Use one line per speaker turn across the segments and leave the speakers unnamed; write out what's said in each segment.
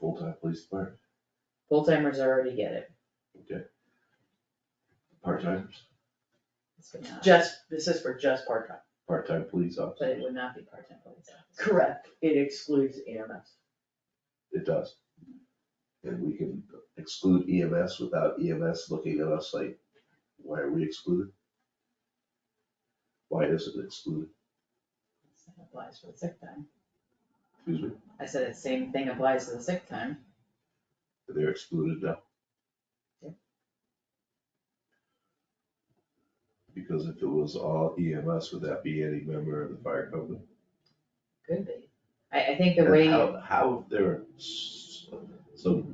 full-time police department,
Full timers already get it,
part-timers,
This is just, this is for just part time,
part-time police
but
officer,
it would not be part time police officer.
Correct, it excludes
E
EMS.
it does. And we can exclude EMS without EMS looking at us like, why are we excluded? Why isn't it excluded,
Same Applies for the sick time,
excuse me,
I said the same thing applies to the sick time,
they're excluded now.
Yeah.
Because if it was all EMS, would that be any member of the fire company?
could be. I, I think the
And
way,
How, how there, so,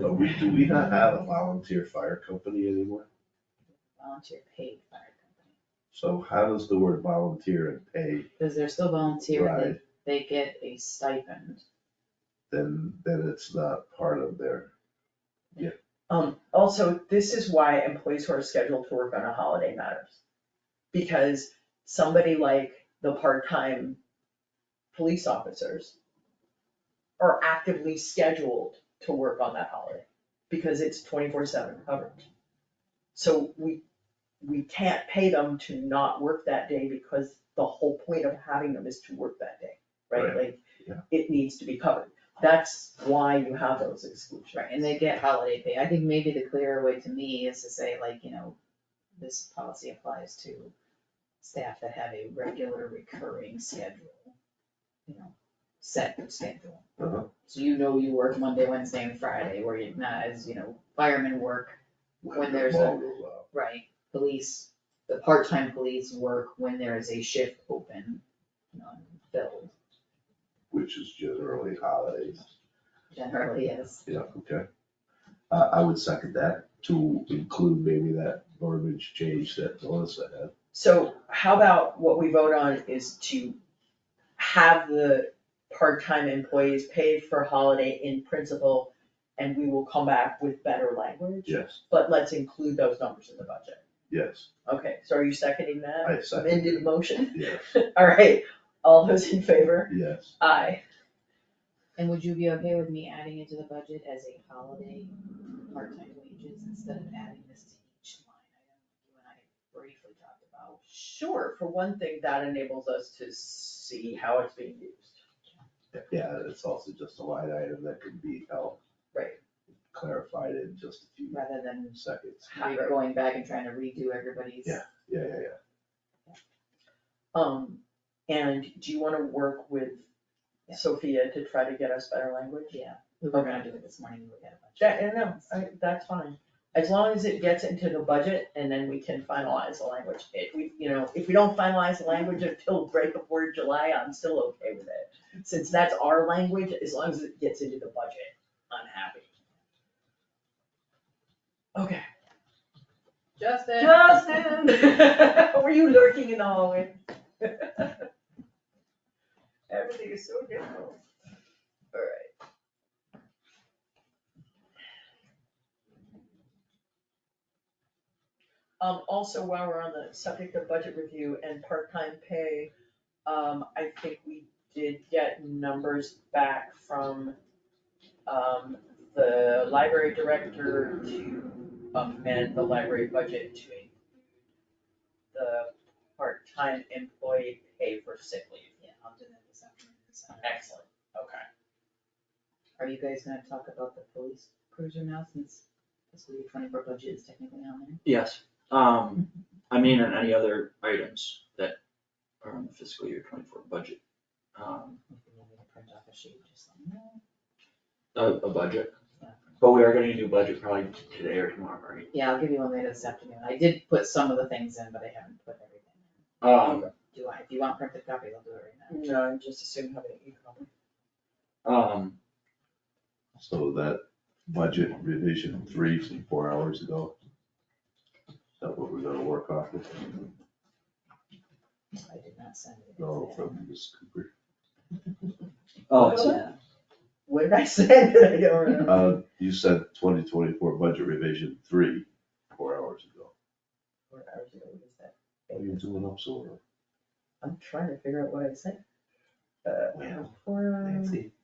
but we, do we not have a volunteer fire company anymore?
volunteer paid fire company,
So how does the word volunteer and
because they're still
pay
volunteer,
ride,
they, they get a stipend.
then, then it's not part of their,
Um, also, this is why employees who are scheduled to work on a holiday matters. Because somebody like the part-time police officers are actively scheduled to work on that holiday, because it's twenty-four seven coverage. So we, we can't pay them to not work that day, because the whole point of having them is to work that day, right? Like,
yeah.
it needs to be covered, that's why you have those exclusions.
Right, and they get holiday pay. I think maybe the clearer way to me is to say like, you know, this policy applies to staff that have a regular recurring schedule. You know, set schedule.
uh-huh,
So you know you work Monday, Wednesday and Friday, where you're not as, you know, firemen work, When
when the
there's a-
ball goes out.
right? Police, the part-time police work when there is a shift open, um, non-filled,
Which is generally holidays,
generally is.
yeah, okay. Uh, I would second that to include maybe that verbiage change that Melissa had.
So how about what we vote on is to have the part-time employees paid for holiday in principle, and we will come back with better language,
Yes,
but let's include those numbers in the budget.
yes,
Okay, so are you seconding that?
I second,
Amended motion?
yes,
All right, all those in favor?
yes.
Aye.
And would you be okay with me adding it to the budget as a holiday, part-time wages, instead of adding this to each line item you and I briefly talked about?
Sure, for one thing, that enables us to see how it's being used.
Yeah, it's also just a line item that could be helped.
Right.
Clarified in just a few
Rather than
seconds.
we were going back and trying to redo everybody's.
Yeah, yeah, yeah.
Um, and do you wanna work with
Yeah.
Sophia to try to get us better language?
Yeah, we were gonna do it this morning, we got a bunch.
That, no, I, that's fine, as long as it gets into the budget and then we can finalize the language, if we, you know, if we don't finalize the language until right before July, I'm still okay with it. Since that's our language, as long as it gets into the budget, I'm happy. Okay.
Justin.
Justin, were you lurking in the hallway? Everything is so difficult. Alright. Um, also, while we're on the subject of budget review and part-time pay, um, I think we did get numbers back from um, the library director to amend the library budget to include the part-time employee pay for sick leave.
Yeah, I'll do that this afternoon. this afternoon.
Excellent, okay.
Are you guys gonna talk about the police cruiser now since fiscal year twenty-four budget is technically on there?
Yes, um, I mean, and any other items that are on the fiscal year twenty-four budget, um,
If you need me to print off a sheet, just let me know.
a, a budget. But we are gonna do budget probably today or tomorrow, right?
Yeah, I'll give you one later this afternoon. I did put some of the things in, but I haven't put everything in.
Um,
Do I, if you want printed copies, I'll do it right now.
No, I just assume having an economic.
um,
So that budget revision three from four hours ago. Is that what we're gonna work off of?
I did not send it.
No, from Ms. Cooper.
oh,
so-
Yeah.
What did I say? I don't remember.
Uh, you said twenty twenty-four budget revision three, four hours ago.
Four hours ago, what is that?
What are you Oh, doing up so early?
I'm trying to figure out what I said. Uh,
Well,
four hours.
Nancy,